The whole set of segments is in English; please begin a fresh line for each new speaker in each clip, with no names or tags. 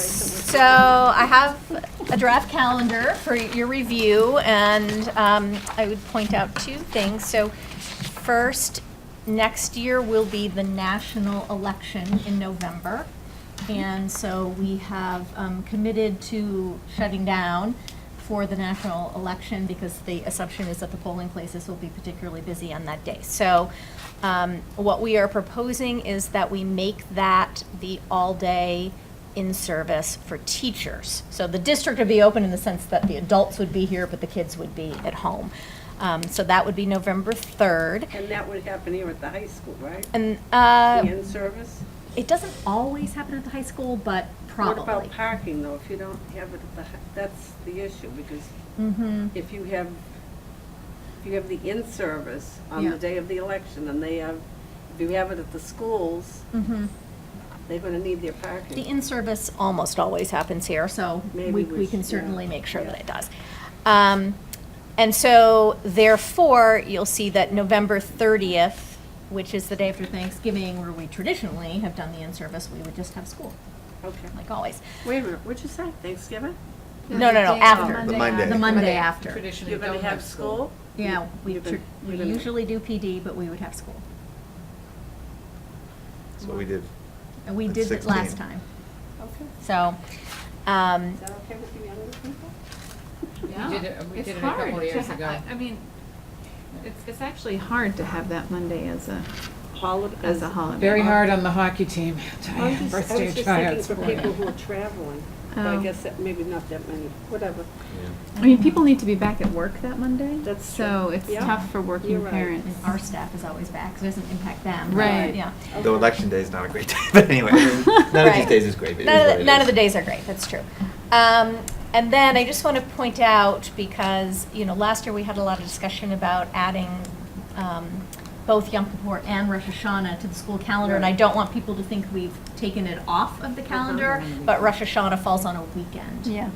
So I have a draft calendar for your review, and um, I would point out two things. So first, next year will be the national election in November. And so we have um, committed to shutting down for the national election because the assumption is that the polling places will be particularly busy on that day. So um, what we are proposing is that we make that the all-day in-service for teachers. So the district would be open in the sense that the adults would be here, but the kids would be at home. Um, So that would be November 3rd.
And that would happen here at the high school, right?
And uh,
The in-service?
it doesn't always happen at the high school, but
What about
probably.
parking, though, if you don't have it at the, hi- that's the issue, because
Mm-hmm.
if you have, if you have the in-service on
Yeah.
the day of the election, and they have, if you have it at the schools,
Mm-hmm.
they're gonna need their
The
parking.
in-service almost always happens here, so
Maybe
we,
we
we
should-
can
yeah,
certainly make sure
yeah.
that it does. Um, and so therefore, you'll see that November thirtieth, which is the day after Thanksgiving, where we traditionally have done the in-service, we would just have school,
Okay.
like always.
Wait a minute, what'd you say, Thanksgiving?
No, no, no, after.
The Monday.
The Monday after.
Traditionally
You're gonna
don't have
have school?
Yeah, we,
You've been-
tr- we
you've been-
usually do PD, but we would have school.
That's what we did.
And we
That's
did it last
16.
time,
Okay,
so, um,
is that okay with the younger people?
Yeah.
did it- we
It's
did it a couple
hard to
years
ha-
ago.
I I mean, it's, it's actually hard to have that Monday as a,
Holiday.
as a holiday.
Very hard on the hockey team.
I was just-
Birthday
I was
tryouts
just thinking
for
for people
it.
who are traveling, but I
Oh.
guess that maybe not that many, whatever.
I mean, people need to be back at work that Monday.
That's
So
true.
it's
Yeah.
tough for
You're
working
right.
parents.
our staff is always back, so it doesn't impact them. but,
Right.
Yeah.
Though election day is not a great day, but anyway, none of
Right.
these days is great. but it is
None
what
of,
it
the, none of the
is.
days are great, that's true. Um, and then I just want to point out, because, you know, last year we had a lot of discussion about adding um, both Yom Kippur and Rosh Hashanah to the school calendar, and I
Right.
don't want people to think we've taken it off of the calendar, but Rosh Hashanah falls on a weekend
Yeah.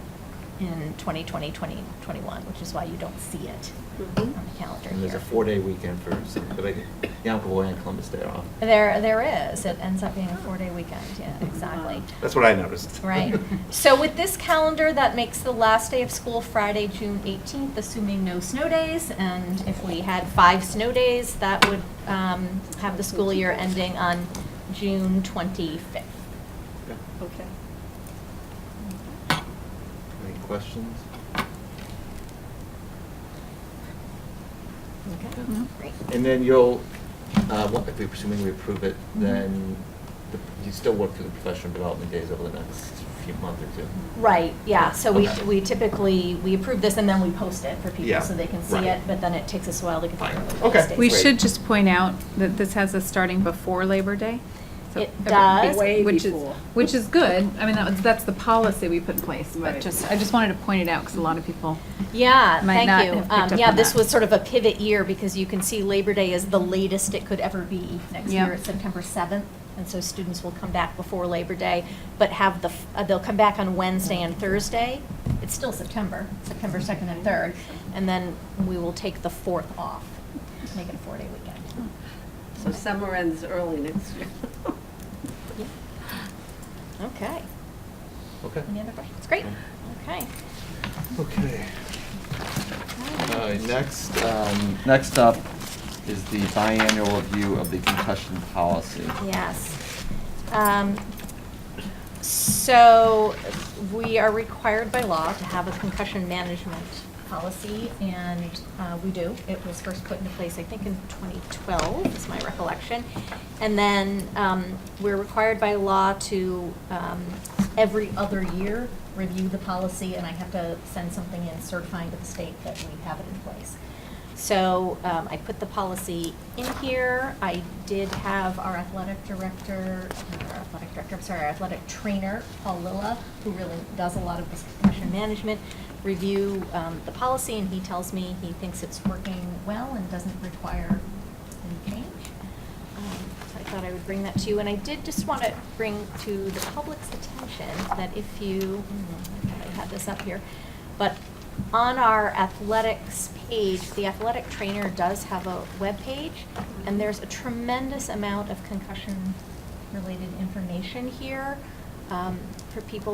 in 2020, 2021, which is why you don't see it on
Mhm.
the calendar
And there's
here.
a four-day weekend for some, like Yom Kippur and Columbus Day are off.
There, there is, it ends up being a four-day weekend, yeah, exactly.
That's what I noticed.
Right. So with this calendar, that makes the last day of school Friday, June 18th, assuming no snow days. And if we had five snow days, that would um, have the school year ending on June 25th.
Yeah.
Okay.
Any questions?
No.
Great.
And then you'll, uh, what- if we, assuming we approve it, then the- you still work through the professional development days over the next few months or two.
Right, yeah, so we
Okay.
we typically, we approve this and then we post it for
Yeah,
people so they can see
right.
it, but then it takes us a while to get
Fine.
the
Okay.
release dates.
We
Great.
should just point out that this has us starting before Labor Day. So
It
every-
does.
Way
Which is,
before.
which is good. I mean, that was, that's the policy we put in place. But
Right.
just, I just wanted to point it out because a lot of people,
Yeah,
might
thank
not
you.
have picked
Um,
up
Yeah,
on
this
that.
was sort of a pivot year because you can see Labor Day is the latest it could ever be next
Yeah.
year. It's September 7th, and so students will come back before Labor Day, but have the, f- uh, they'll come back on Wednesday and Thursday. It's still September, September 2nd and 3rd, and then we will take the 4th off, make it a four-day
Oh.
weekend.
So summer ends early next year.
Okay.
Okay.
Any other questions? Great. Okay.
Okay. All right, next, um, next up is the biannual review of the concussion policy.
Yes. Um, So we are required by law to have a concussion management policy, and uh, we do. It was first put into place, I think, in 2012, is my recollection. And then um, we're required by law to, um, every other year, review the policy, and I have to send something in certifying to the state that we have it in place. So um, I put the policy in here. I did have our athletic director, not our athletic director, I'm sorry, our athletic trainer, Paul Lilla, who really does a lot of this concussion management, review um, the policy, and he tells me he thinks it's working well and doesn't require any change. Um, So I thought I would bring that to you, and I did just want to bring to the public's attention that if you, hmm, I thought I had this up here, but on our athletics page, the athletic trainer does have a web page, and there's a tremendous amount of concussion-related information here um, for people